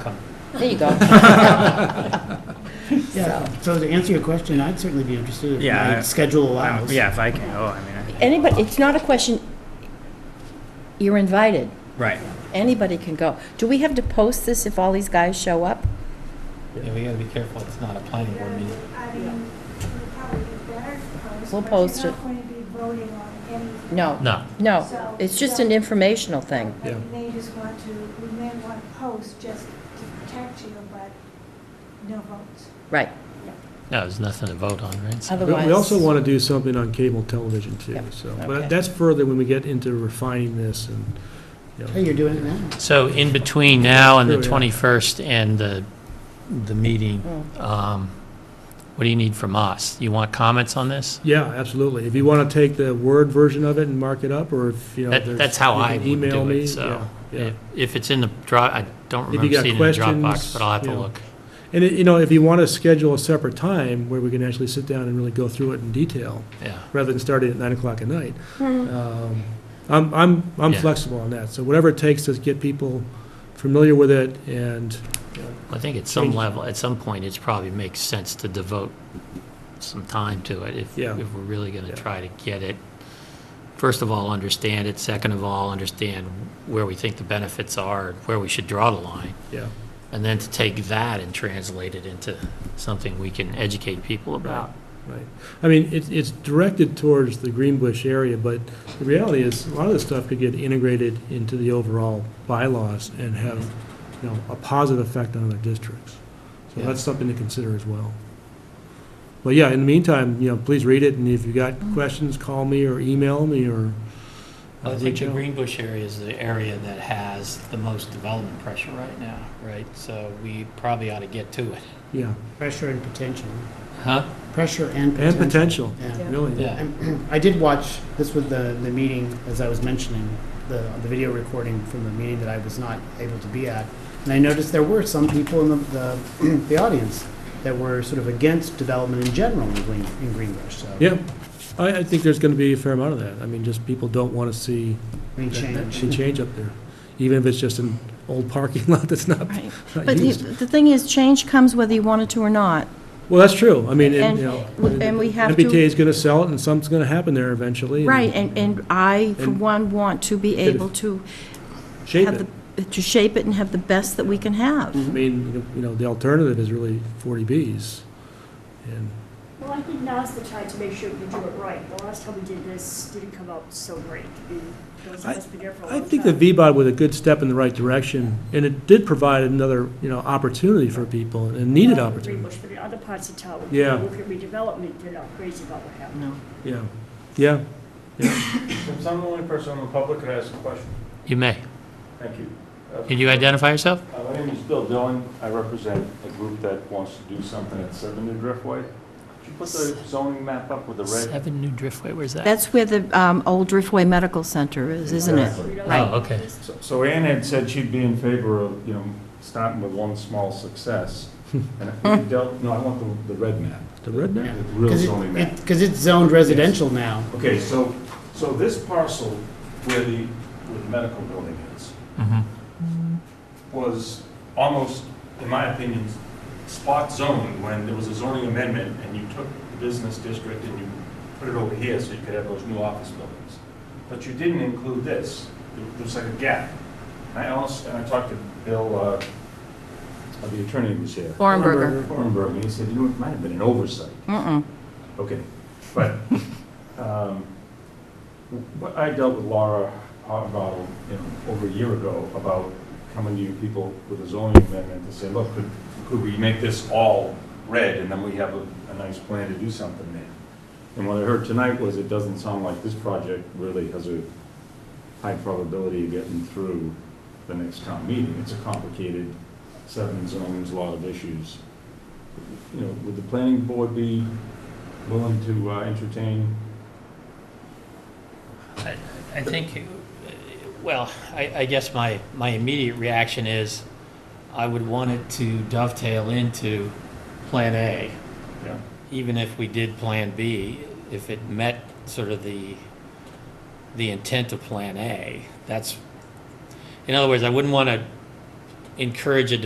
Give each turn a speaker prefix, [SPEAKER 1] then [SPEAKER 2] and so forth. [SPEAKER 1] come.
[SPEAKER 2] There you go.
[SPEAKER 3] Yeah,
[SPEAKER 2] So,
[SPEAKER 3] so to answer your question, I'd certainly be interested if
[SPEAKER 1] Yeah,
[SPEAKER 3] my
[SPEAKER 1] I-
[SPEAKER 3] schedule allows.
[SPEAKER 1] Yeah, if I can go, I mean, I-
[SPEAKER 2] Anybody, it's not a question, you're invited.
[SPEAKER 1] right.
[SPEAKER 2] Anybody can go. Do we have to post this if all these guys show up?
[SPEAKER 1] Yeah, we gotta be careful, it's not a planning board meeting.
[SPEAKER 4] I mean, it would probably be better to post.
[SPEAKER 2] We'll
[SPEAKER 4] but
[SPEAKER 2] post
[SPEAKER 4] You're
[SPEAKER 2] it.
[SPEAKER 4] not going to be voting on anything.
[SPEAKER 2] No.
[SPEAKER 5] No.
[SPEAKER 2] No, it's just an informational thing.
[SPEAKER 4] But
[SPEAKER 5] Yeah.
[SPEAKER 4] you may just want to, we may want to post just to protect you, but no votes.
[SPEAKER 2] Right.
[SPEAKER 5] No, there's nothing to vote on, right? So-
[SPEAKER 2] Otherwise.
[SPEAKER 6] We also want to do something on cable television too,
[SPEAKER 2] Yep,
[SPEAKER 6] so,
[SPEAKER 2] okay.
[SPEAKER 6] but that's further when we get into refining this and, you
[SPEAKER 3] Hey,
[SPEAKER 6] know,
[SPEAKER 3] you're doing it now.
[SPEAKER 5] So in between now and the
[SPEAKER 6] Oh, yeah.
[SPEAKER 5] 21st and the, the meeting, um, what do you need from us? You want comments on this?
[SPEAKER 6] yeah, absolutely. If you want to take the Word version of it and mark it up, or if, you know.
[SPEAKER 5] That,
[SPEAKER 6] there's-
[SPEAKER 5] that's how
[SPEAKER 6] you
[SPEAKER 5] I
[SPEAKER 6] can
[SPEAKER 5] would
[SPEAKER 6] email
[SPEAKER 5] do
[SPEAKER 6] me,
[SPEAKER 5] it, so.
[SPEAKER 6] yeah, yeah.
[SPEAKER 5] If if it's in the Dropbox, I don't
[SPEAKER 6] If you
[SPEAKER 5] remember
[SPEAKER 6] got
[SPEAKER 5] seeing it in the Dropbox,
[SPEAKER 6] questions,
[SPEAKER 5] but I'll have to
[SPEAKER 6] yeah.
[SPEAKER 5] look.
[SPEAKER 6] And, it- you know, if you want to schedule a separate time where we can actually sit down and really go through it in detail,
[SPEAKER 5] Yeah,
[SPEAKER 6] rather than starting at nine o'clock at night.
[SPEAKER 2] Hmm.
[SPEAKER 6] Um, I'm, I'm, I'm
[SPEAKER 5] Yeah.
[SPEAKER 6] flexible on that, so whatever it takes to get people familiar with it and,
[SPEAKER 5] I think at some
[SPEAKER 6] Change.
[SPEAKER 5] level, at some point, it's probably makes sense to devote some time to it if,
[SPEAKER 6] Yeah.
[SPEAKER 5] if we're really going to
[SPEAKER 6] Yeah.
[SPEAKER 5] try to get it. First of all, understand it. Second of all, understand where we think the benefits are, and where we should draw the line.
[SPEAKER 6] yeah.
[SPEAKER 5] And then to take that and translate it into something we can educate people about.
[SPEAKER 6] Right. I mean, it's, it's directed towards the Greenbush area, but the reality is, a lot of this stuff could get integrated into the overall bylaws and have, you know, a positive effect on other districts. So
[SPEAKER 5] Yeah.
[SPEAKER 6] that's something to consider as well. But yeah, in the meantime, you know, please read it, and if you got questions, call me or email me or. uh,
[SPEAKER 5] Oh,
[SPEAKER 1] I think
[SPEAKER 6] reach
[SPEAKER 1] the
[SPEAKER 6] out.
[SPEAKER 1] Green Bush area is the area that has the most development pressure right now, right? So we probably ought to get to it.
[SPEAKER 6] Yeah,
[SPEAKER 3] Pressure and potential.
[SPEAKER 1] Huh?
[SPEAKER 3] Pressure and
[SPEAKER 6] and
[SPEAKER 3] potential.
[SPEAKER 6] potential,
[SPEAKER 3] Yeah.
[SPEAKER 6] really.
[SPEAKER 1] Yeah.
[SPEAKER 3] I did watch, this was the, the meeting, as I was mentioning, the, the video recording from the meeting that I was not able to be at. And I noticed there were some people in the, the, the audience that were sort of against development in general in Green, in Greenbush, so.
[SPEAKER 6] Yeah, I, I think there's gonna be a fair amount of that. I mean, just people don't wanna see
[SPEAKER 3] Any
[SPEAKER 6] Any
[SPEAKER 3] change.
[SPEAKER 6] change up there, even if it's just an old parking lot that's not
[SPEAKER 7] Right.
[SPEAKER 6] not
[SPEAKER 7] But the
[SPEAKER 6] used.
[SPEAKER 7] the thing is, change comes whether you want it to or not.
[SPEAKER 6] Well, that's true, I mean, and,
[SPEAKER 7] And-
[SPEAKER 6] you know.
[SPEAKER 7] and we have to-
[SPEAKER 6] MBTA is gonna sell it, and something's gonna happen there eventually. and
[SPEAKER 7] Right, and, and I, for
[SPEAKER 6] And-
[SPEAKER 7] one, want to be able to
[SPEAKER 6] Shape
[SPEAKER 7] have
[SPEAKER 6] it.
[SPEAKER 7] the, to shape it and have the best that we can
[SPEAKER 6] I
[SPEAKER 7] have.
[SPEAKER 6] mean, you know- you know, the alternative is really forty Bs, and,
[SPEAKER 8] Well, I think now's the time to make sure we do it right. The last time we did this didn't come out so great. We- Those of us been here for a
[SPEAKER 6] I
[SPEAKER 8] long
[SPEAKER 6] think the
[SPEAKER 8] time.
[SPEAKER 6] VBOD was a good step in the right direction, and it did provide another, you know, opportunity for people, and needed
[SPEAKER 8] Not in
[SPEAKER 6] opportunity.
[SPEAKER 8] Greenbush, But in other parts of town.
[SPEAKER 6] Yeah.
[SPEAKER 8] Look at redevelopment, they're not crazy about what happened.
[SPEAKER 7] No.
[SPEAKER 6] Yeah, yeah.
[SPEAKER 9] Since I'm the only person in the public that has a question,
[SPEAKER 5] You may.
[SPEAKER 9] thank you.
[SPEAKER 5] Can you identify yourself?
[SPEAKER 9] Uh, My name is Bill Dillon. I represent a group that wants to do something at Seven New Driftway. Could you put the zoning map up with the red?
[SPEAKER 5] Seven New Driftway, where's that?
[SPEAKER 7] That's where the um, old Driftway Medical Center is, isn't it?
[SPEAKER 9] Exactly.
[SPEAKER 5] Oh, okay.
[SPEAKER 9] So- So Ann had said she'd be in favor of, you know, starting with one small success. And if we dealt, no, I want the, the red map,
[SPEAKER 6] The red
[SPEAKER 9] the
[SPEAKER 6] now?
[SPEAKER 9] real zoning map.
[SPEAKER 3] Because it's zoned residential now.
[SPEAKER 9] Okay, so, so this parcel where the, where the medical building is,
[SPEAKER 5] Mhm.
[SPEAKER 9] Mm-hmm. was almost, in my opinion, spot zoning when there was a zoning amendment and you took the business district and you put it over here so you could have those new office buildings. But you didn't include this. There there was like a gap. And I also, and I talked to Bill, uh, uh, the attorney who was here.
[SPEAKER 7] Bornberger.
[SPEAKER 9] Hornberg, and he said, you know, it might have been an oversight.
[SPEAKER 7] Mm-mm.
[SPEAKER 9] Okay, but, um, but I dealt with Laura Harbottle, you know, over a year ago about coming to you people with a zoning amendment to say, look, could, could we make this all red and then we have a, a nice plan to do something there? And what I heard tonight was it doesn't sound like this project really has a high probability of getting through the next town meeting. It's a complicated, seven zones, a lot of issues. You know, would the planning board be willing to uh, entertain.
[SPEAKER 5] I I think, uh, well, I, I guess my, my immediate reaction is, I would want it to dovetail into Plan A,
[SPEAKER 9] Yeah.
[SPEAKER 5] even if we did Plan B, if it met sort of the, the intent of Plan A. That's, in other words, I wouldn't want to encourage a